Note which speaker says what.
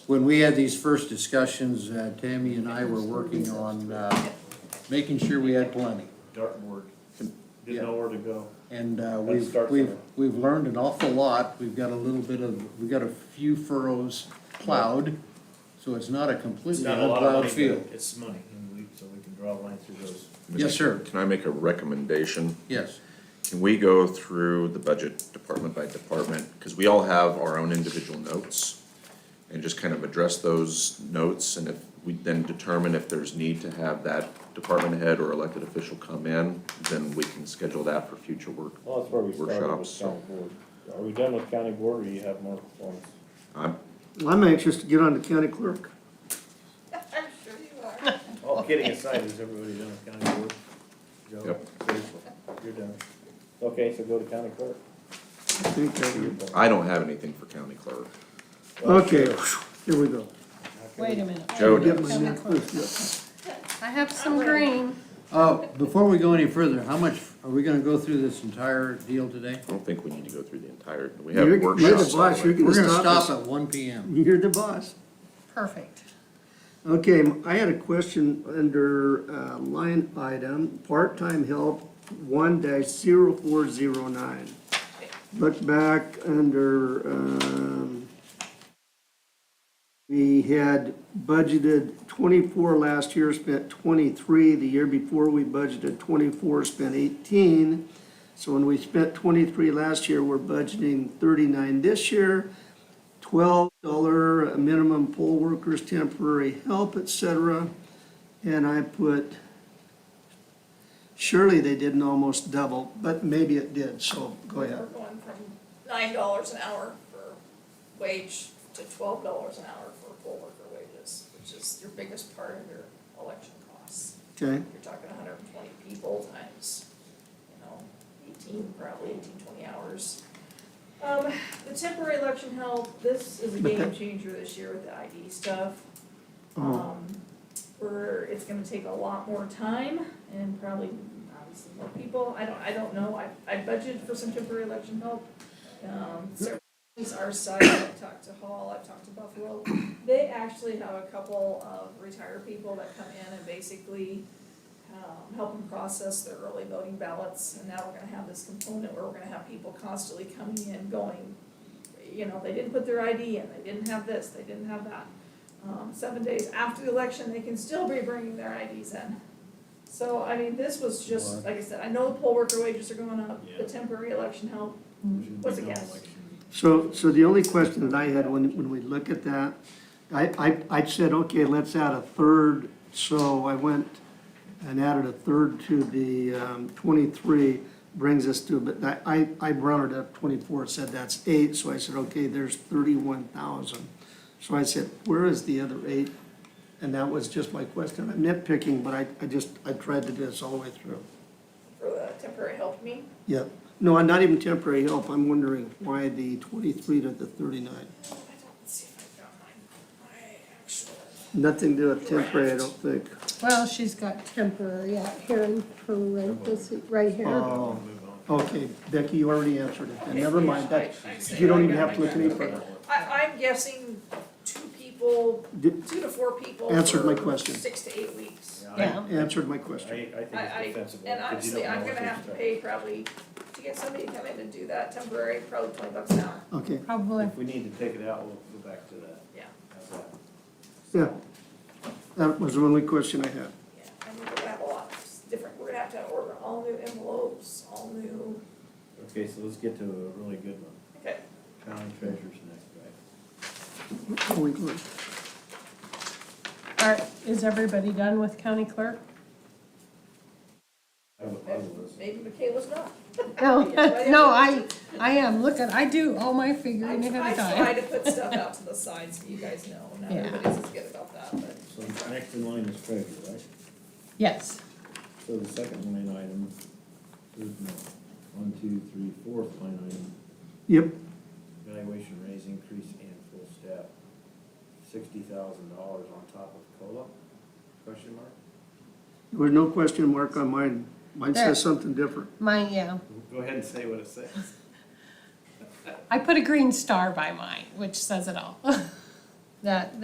Speaker 1: When we had these first discussions, uh, Tammy and I were working on uh, making sure we had plenty.
Speaker 2: Dartmoor,
Speaker 1: Yeah.
Speaker 2: didn't know where to go.
Speaker 1: And uh,
Speaker 2: Let's
Speaker 1: we've,
Speaker 2: start
Speaker 1: we've,
Speaker 2: somewhere.
Speaker 1: we've learned an awful lot. We've got a little bit of, we've got a few furrows plowed, so it's not a
Speaker 2: It's
Speaker 1: completely
Speaker 2: not a lot of money,
Speaker 1: unplowed field.
Speaker 2: but it's money, and we, so we can draw a line through those.
Speaker 1: Yes, sir.
Speaker 3: Can I make a recommendation?
Speaker 1: Yes,
Speaker 3: Can we go through the budget department by department? Because we all have our own individual notes and just kind of address those notes. And if we then determine if there's need to have that department head or elected official come in, then we can schedule that for future work.
Speaker 2: Well, that's where we started with
Speaker 3: Workshops.
Speaker 2: county board. Are we done with county board, or you have more performance?
Speaker 3: I'm,
Speaker 4: I'm anxious to get on to county clerk.
Speaker 5: I'm sure you are.
Speaker 2: All kidding aside, is everybody done with county board? Joe,
Speaker 3: Yep.
Speaker 2: seriously, You're done. Okay, so go to county clerk.
Speaker 4: I think that we-
Speaker 3: I don't have anything for county clerk.
Speaker 4: Okay, here we go.
Speaker 6: Wait a minute,
Speaker 3: Joe
Speaker 4: Get
Speaker 3: does.
Speaker 4: my necklace.
Speaker 6: I have some green.
Speaker 1: Uh, before we go any further, how much, are we gonna go through this entire deal today?
Speaker 3: I don't think we need to go through the entire, we
Speaker 4: You're-
Speaker 3: have
Speaker 4: you're the
Speaker 3: workshops.
Speaker 4: boss,
Speaker 3: all the way.
Speaker 4: you're
Speaker 1: We're gonna
Speaker 4: Stop
Speaker 1: stop at one PM.
Speaker 4: You're the boss.
Speaker 6: Perfect.
Speaker 4: Okay, I had a question under uh, line item, part-time help, one dash zero four zero nine. Look back under, um, we had budgeted twenty-four last year, spent twenty-three. The year before, we budgeted twenty-four, spent eighteen. So when we spent twenty-three last year, we're budgeting thirty-nine this year twelve dollar minimum poll workers, temporary help, et cetera. And I put, surely they didn't almost double, but maybe it did, so go
Speaker 5: We're
Speaker 4: ahead.
Speaker 5: going from nine dollars an hour for wage to twelve dollars an hour for poll worker wages, which is your biggest part of your election costs.
Speaker 4: Okay,
Speaker 5: You're talking hundred and twenty people times, you know, eighteen, probably eighteen, twenty hours. Um, the temporary election help, this is a
Speaker 4: But that-
Speaker 5: game changer this year with the ID stuff.
Speaker 4: oh,
Speaker 5: Um, we're, it's gonna take a lot more time and probably obviously more people, I don't, I don't know, I, I budgeted for some temporary election help. Um, so these are side, I've talked to Hall, I've talked to Buffalo, they actually have a couple of retired people that come in and basically um, help them process their early voting ballots, and now we're gonna have this component where we're gonna have people constantly coming in, going, you know, they didn't put their ID in, they didn't have this, they didn't have that um, seven days after the election, they can still be bringing their IDs in. So, I mean, this was just, like I said, I know the poll worker wages are going up, the
Speaker 2: Yeah.
Speaker 5: temporary election help,
Speaker 4: Mm-hmm.
Speaker 2: What's
Speaker 5: What's a guess?
Speaker 4: so, so the only question that I had when, when we look at that, I, I, I said, okay, let's add a third, so I went and added a third to the um, twenty-three, brings us to, but I- I, I rounded up twenty-four, said that's eight, so I said, okay, there's thirty-one thousand. So I said, where is the other eight? And that was just my question, I'm nitpicking, but I, I just, I tried to do this all the way through.
Speaker 5: for the temporary help me.
Speaker 4: Yeah, no, I'm not even temporary help, I'm wondering why the twenty-three to the thirty-nine.
Speaker 5: I don't, let's see if I found mine, my actual.
Speaker 4: Nothing to do with temporary, I don't think.
Speaker 6: Well, she's got temporary out here in parentheses, right here.
Speaker 4: Oh, okay, Becky, you already answered it, then, never mind, that,
Speaker 5: I- I say
Speaker 4: you don't even
Speaker 5: I
Speaker 4: have to look any
Speaker 5: got it.
Speaker 4: further.
Speaker 5: I, I'm guessing two people,
Speaker 4: Did-
Speaker 5: two to four people.
Speaker 4: Answered my
Speaker 5: for
Speaker 4: question.
Speaker 5: Six to eight weeks.
Speaker 6: Yeah,
Speaker 4: Answered my
Speaker 2: I, I
Speaker 4: question.
Speaker 2: think it's
Speaker 5: I, I,
Speaker 2: defensible.
Speaker 5: and
Speaker 2: 'cause you
Speaker 5: honestly,
Speaker 2: don't know
Speaker 5: I'm
Speaker 2: what
Speaker 5: gonna
Speaker 2: to
Speaker 5: have to
Speaker 2: expect.
Speaker 5: pay probably, to get somebody to come in and do that temporary, probably twenty bucks an hour,
Speaker 4: Okay,
Speaker 6: probably.
Speaker 2: If we need to take it out, we'll go back to that.
Speaker 5: yeah.
Speaker 2: How's that?
Speaker 4: yeah, that was the only question I had.
Speaker 5: Yeah, and we're gonna have a lot of different, we're gonna have to order all new envelopes, all new,
Speaker 2: Okay, so let's get to a really good one.
Speaker 5: okay,
Speaker 2: County treasurer's next, right?
Speaker 4: Where are we going?
Speaker 6: All right, is everybody done with county clerk?
Speaker 2: I would, I would listen.
Speaker 5: maybe Michaela's not.
Speaker 6: No, no, I, I am, look at, I do all my figuring
Speaker 5: I
Speaker 6: ahead of
Speaker 5: try
Speaker 6: time.
Speaker 5: to put stuff out to the side so you guys know, not
Speaker 6: Yeah.
Speaker 5: everybody's as good about that, but.
Speaker 2: So next in line is treasurer, right?
Speaker 6: Yes,
Speaker 2: So the second line item, there's no, one, two, three, fourth line item,
Speaker 4: Yep,
Speaker 2: valuation raise increase and full staff, sixty thousand dollars on top of COLA, question mark?
Speaker 4: there was no question mark on mine, mine
Speaker 6: There.
Speaker 4: says something different.
Speaker 6: mine, yeah.
Speaker 2: Go ahead and say what it says.
Speaker 6: I put a green star by mine, which says it all. that,